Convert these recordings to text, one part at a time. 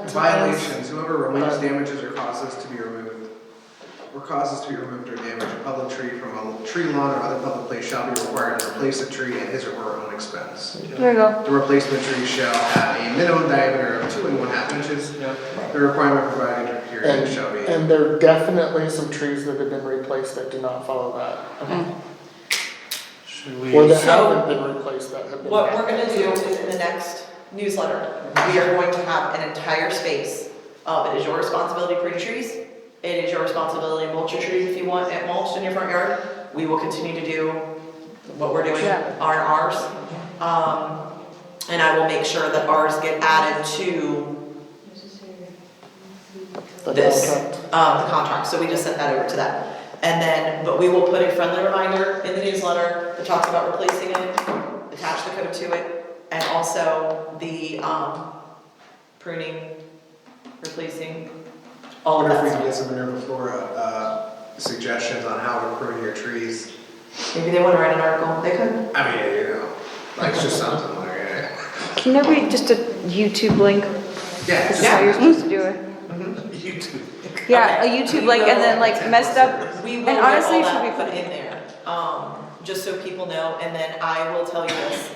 That's what I was- Violations, whoever removes Uh, damages or causes to be removed, or causes to be removed or damaged a public tree from a tree lawn or other public place shall be required to replace the tree at his or her own expense. There you go. The replacement tree shall have a minimum diameter of two and one half inches. The requirement provided here And, shall be. and there are definitely some trees that have been replaced that do not follow that. Should Or we, that haven't been replaced that have been. What we're gonna do is in the next newsletter, we are going to have an entire space of Um, it is your responsibility to prune trees. It is your responsibility to mulch your trees if you want it mulched in your front yard. We will continue to do what we're doing, Yeah. R and Rs. Um, and I will make sure that Rs get added to the this, contract. um, the contract, so we just sent that over to that. And then, but we will put a friendly reminder in the newsletter that talks about replacing it, attach the code to it, and also the, um, pruning, replacing, all of Wonder if we that can stuff. get some Minerva Flora, uh, suggestions on how to prune your trees. Maybe they wanna write an article, they could. I mean, you know, like, it's just something like, yeah. Can there be just a YouTube link? Yeah, This it's is how just- you're supposed to do it. YouTube, Yeah, a Okay. YouTube link and then like messed up. We will And get honestly, all it should that be put put- in there, um, just so people know, and then I will tell you this.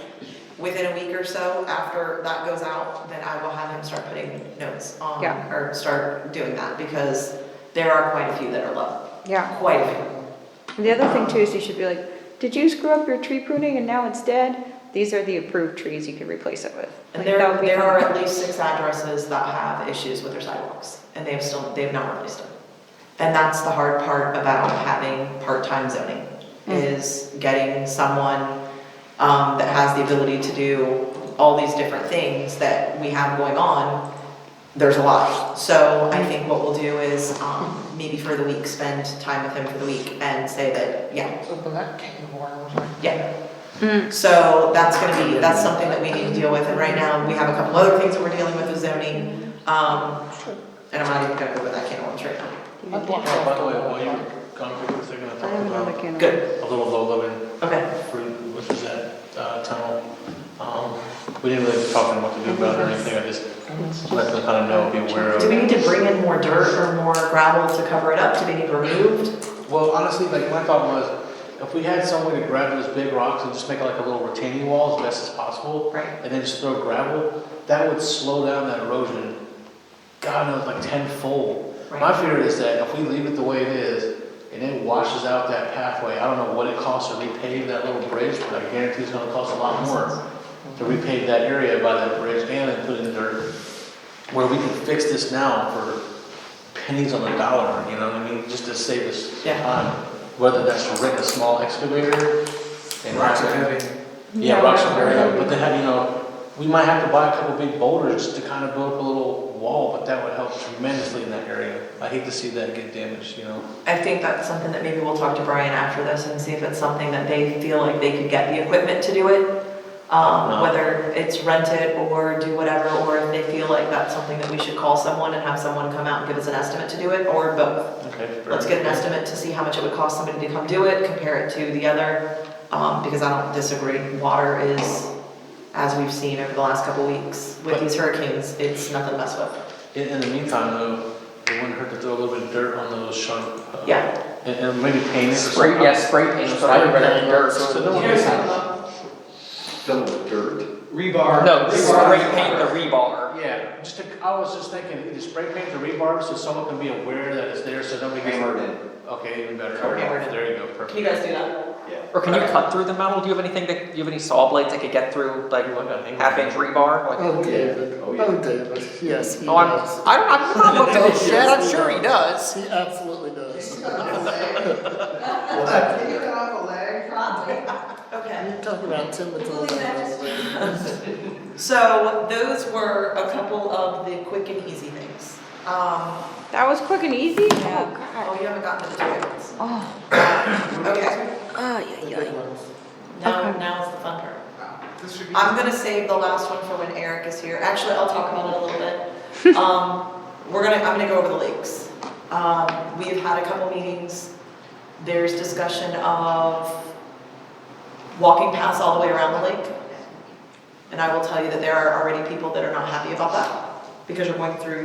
Within a week or so after that goes out, then I will have him start putting notes on, Yeah. or start doing that, because there are quite a few that are low, Yeah. quite a few. And the other thing too is you should be like, did you screw up your tree pruning and now it's dead? These are the approved trees you can replace it with. Like, And that would there, be there fun. are at least six addresses that have issues with their sidewalks, and they have still, they have not released them. And that's the hard part about having part-time zoning, Mm. is getting someone, um, that has the ability to do all these different things that we have going on. There's a lot, so Mm. I think what we'll do is, um, maybe for the week, spend time with him for the week and say that, yeah, Open that can of worms. yeah. Hmm. Mm. So that's gonna be, that's something that we need to deal with, and right now, we have a couple other things that we're dealing with with zoning, um, and I'm not even gonna go with that can of worms right now. You I need- blocked oh, by the way, out. while you're gone, we're thinking of I have talking another about can. of- Good, a little low-living okay, fruit, which is that, uh, tunnel. Um, we didn't really talk about what to do about it or anything, I just let them kind of know, be aware of. do we need to bring in more dirt or more gravel to cover it up, do they need removed? Well, honestly, like my thought was, if we had some way to grab those big rocks and just make like a little retaining wall as best as possible, Right. and then just throw gravel, that would slow down that erosion. God knows, like tenfold. My Right. fear is that if we leave it the way it is, and it washes out that pathway, I don't know what it costs to repave that little bridge, but I guarantee it's gonna cost a lot more to repave that area by that bridge and then put in the dirt, where we can fix this now for pennies on the dollar, you know what I mean, just to save us some Yeah. time. Whether that's to rent a small excavator and Rocks are heavy. yeah, Yeah, rocks rocks are are very heavy. heavy, but then, have, you know, we might have to buy a couple big boulders just to kind of build up a little wall, but that would help tremendously in that area. I hate to see that get damaged, you know? I think that's something that maybe we'll talk to Brian after this and see if it's something that they feel like they could get the equipment to do it. Um, No. whether it's rent it or do whatever, or if they feel like that's something that we should call someone and have someone come out and give us an estimate to do it, or both. Okay. fair. Let's get an estimate to see how much it would cost somebody to come do it, compare it to the other, um, because I don't disagree, water is, as we've seen over the last couple weeks with But- these hurricanes, it's nothing to mess with. In, in the meantime, though, it wouldn't hurt to throw a little bit of dirt on those sharp. uh, Yeah. And, and maybe paint it or Spray, something. yeah, spray paint, but I would recommend dirt. so that- You know what I'm saying? Filled with dirt. Rebar. No, Rebar. spray paint the rebar. Yeah, just, to- I was just thinking, either spray paint the rebar so someone can be aware that it's there, so nobody gets. Hammered in. Okay, even better. Hammered in. There you go, perfect. Can you guys do that? Or can you cut through the metal? Do you have anything that, do you have any saw blades that could get through like Like a hammer. half inch rebar? Like, Oh, David, Oh, yeah. oh, David, yes, he oh, I'm, does. I don't, I'm not looking at his shed, I'm sure he does. He absolutely does. Take Uh, it off a leg. Okay. You're talking about Timothy. So those were a couple of the quick and easy things. Um, That was quick and easy? Oh, oh, God. you haven't gotten to the toilets. Oh, Okay, oh, yeah, yeah. now, Okay. now is the fun part. Uh, This should be. I'm gonna save the last one for when Eric is here. Actually, I'll talk about it a little bit. Um, we're gonna, I'm gonna go over the lakes. Um, we have had a couple meetings. There's discussion of walking paths all the way around the lake. And I will tell you that there are already people that are not happy about that because you're going through